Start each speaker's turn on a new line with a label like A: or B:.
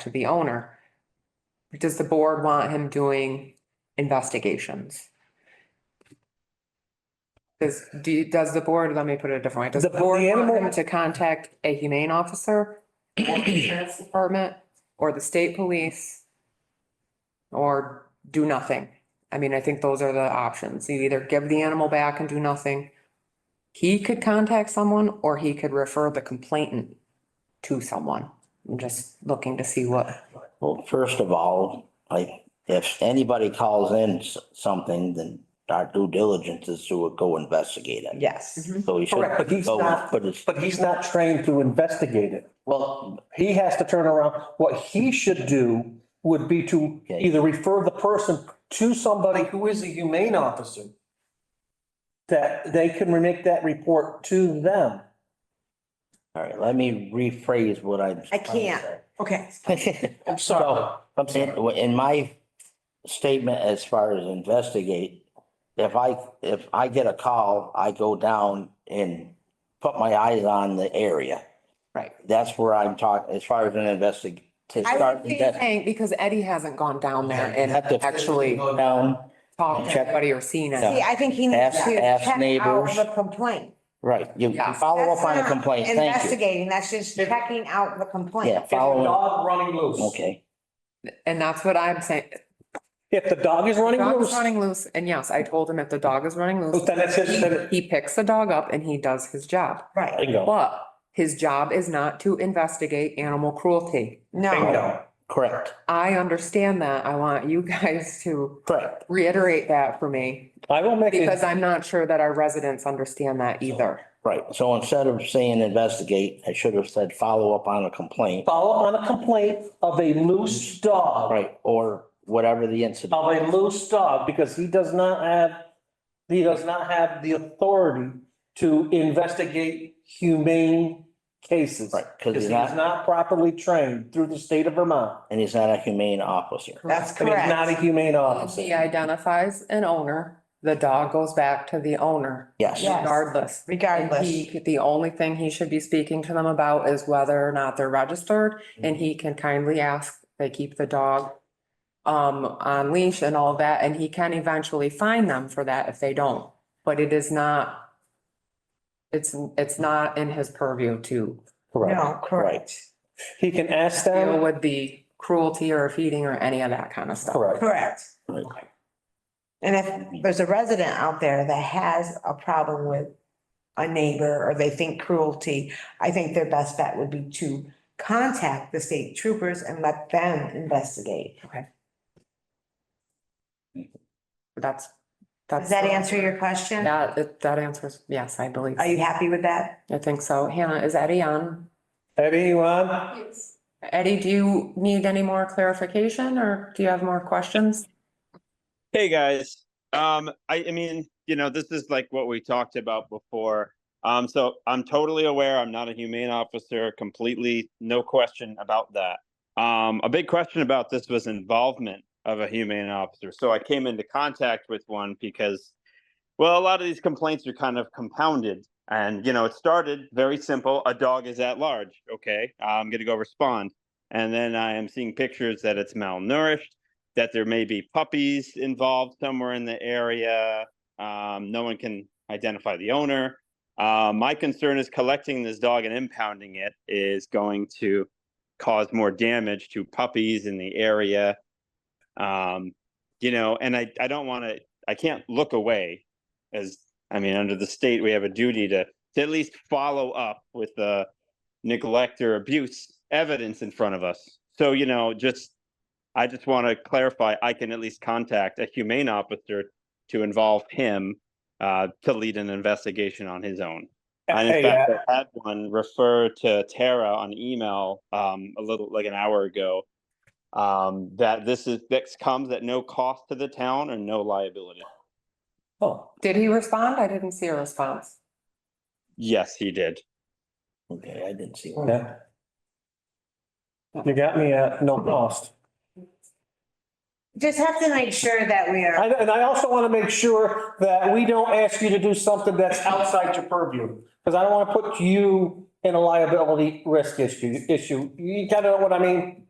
A: to the owner. Does the board want him doing investigations? Does, do, you- does the board, let me put it a different way, does
B: The-
A: the board
B: the
A: want him
B: animal-
A: to contact a humane officer? Or the sheriff's department, or the state police? Or do nothing? I mean, I think those are the options. You either give the animal back and do nothing. He could contact someone or he could refer the complainant to someone. I'm just looking to see what,
C: Well, first of all, like, if anybody calls in s- something, then our due diligence is to go investigate it.
B: Yes.
A: Mm-hmm.
C: So we should
B: Correct, but he's
C: go,
B: not-
C: but it's,
B: But he's not trained to investigate it.
C: well,
B: He has to turn around. What he should do would be to
C: Okay.
B: either refer the person to somebody who is a humane officer. That they can make that report to them.
C: all right, let me rephrase what I.
D: I can't. Okay.
C: I'm sorry. In, in my statement as far as investigate, if I, if I get a call, I go down and put my eyes on the area.
A: right.
C: That's where I'm talking, as far as an investig, to
A: I
C: start.
A: would be saying, because Eddie hasn't gone down there and
C: Have to
A: actually
C: go Down,
A: talked to
C: Check.
A: anybody or seen
C: No.
A: it.
D: See, I think he needs
C: Ask-
D: to
C: ask
D: check out
C: neighbors.
D: the complaint.
C: right, you you
A: Yeah.
C: follow up
D: That's
C: on a
D: not
C: complaint, thank you.
D: Investigating, that's just checking out the
C: Yeah,
D: complaint.
C: follow up,
B: running loose.
C: okay.
A: And that's what I'm saying.
B: If the dog is running
A: Dog is
B: loose,
A: running loose. And yes, I told him if the dog is running loose,
B: then it's his, then it-
A: he picks the dog up and he does his job.
D: Right,
B: bingo,
A: But his job is not to investigate animal cruelty.
D: no,
B: bingo.
C: Correct,
A: I understand that. I want you guys to
C: correct.
A: reiterate that for me
B: I will make,
A: because
B: a-
A: I'm not sure that our residents understand that either.
C: Right, so instead of saying investigate, I should have said follow up on a complaint,
B: follow up on a complaint of a loose dog.
C: right, or whatever the incident.
B: of a loose dog because he does not have, he does not have the authority to investigate humane cases.
C: Right,
B: Because
C: because
B: he's
C: he's not,
B: not properly trained through the state of Vermont.
C: and he's not a humane officer.
D: that's
B: And he's not a
D: correct.
B: humane
A: If
B: officer.
A: he identifies an owner, the dog goes back to the owner
C: Yes,
D: Yeah. Yes.
A: regardless. And
D: Regardless,
A: he, the only thing he should be speaking to them about is whether or not they're registered, and he can kindly ask, they keep the dog um, on leash and all that, and he can eventually fine them for that if they don't, but it is not, it's, it's not in his purview to
C: correct.
D: no, correct,
B: He can ask
A: deal
B: them.
A: with the cruelty or feeding or any of that kind of stuff.
D: correct.
C: Right.
D: And if there's a resident out there that has a problem with a neighbor or they think cruelty, I think their best bet would be to contact the state troopers and let them investigate.
A: That's, that's.
D: Does that answer your question?
A: That, it- that answers, yes, I believe,
D: Are you happy with that?
A: I think so. Hannah, is Eddie on?
B: Anyone?
A: Eddie, do you need any more clarification or do you have more questions?
E: Hey guys, um, I, I mean, you know, this is like what we talked about before. Um, so I'm totally aware I'm not a humane officer, completely no question about that. Um, a big question about this was involvement of a humane officer. So I came into contact with one because, well, a lot of these complaints are kind of compounded. And, you know, it started very simple. A dog is at large. Okay, I'm going to go respond. And then I am seeing pictures that it's malnourished that there may be puppies involved somewhere in the area. Um, no one can identify the owner. Uh, my concern is collecting this dog and impounding it is going to cause more damage to puppies in the area. Um, you know, and I, I don't want to, I can't look away as, I mean, under the state, we have a duty to, to at least follow up with the neglect or abuse evidence in front of us. So, you know, just I just want to clarify, I can at least contact a humane officer to involve him uh, to lead an investigation on his own. And in
B: Hey,
E: fact, I had one refer to Tara on email um, a little, like an hour ago, um, that this is, this comes at no cost to the town and no liability.
B: Oh,
A: Did he respond? I didn't see a response.
E: Yes, he did.
C: Okay, I didn't see one.
B: yeah. You got me at no cost.
D: Just have to make sure that we are.
B: I- And I also want to make sure that we don't ask you to do something that's outside your purview. Because I don't want to put you in a liability risk issue, issue. You kind of know what I mean?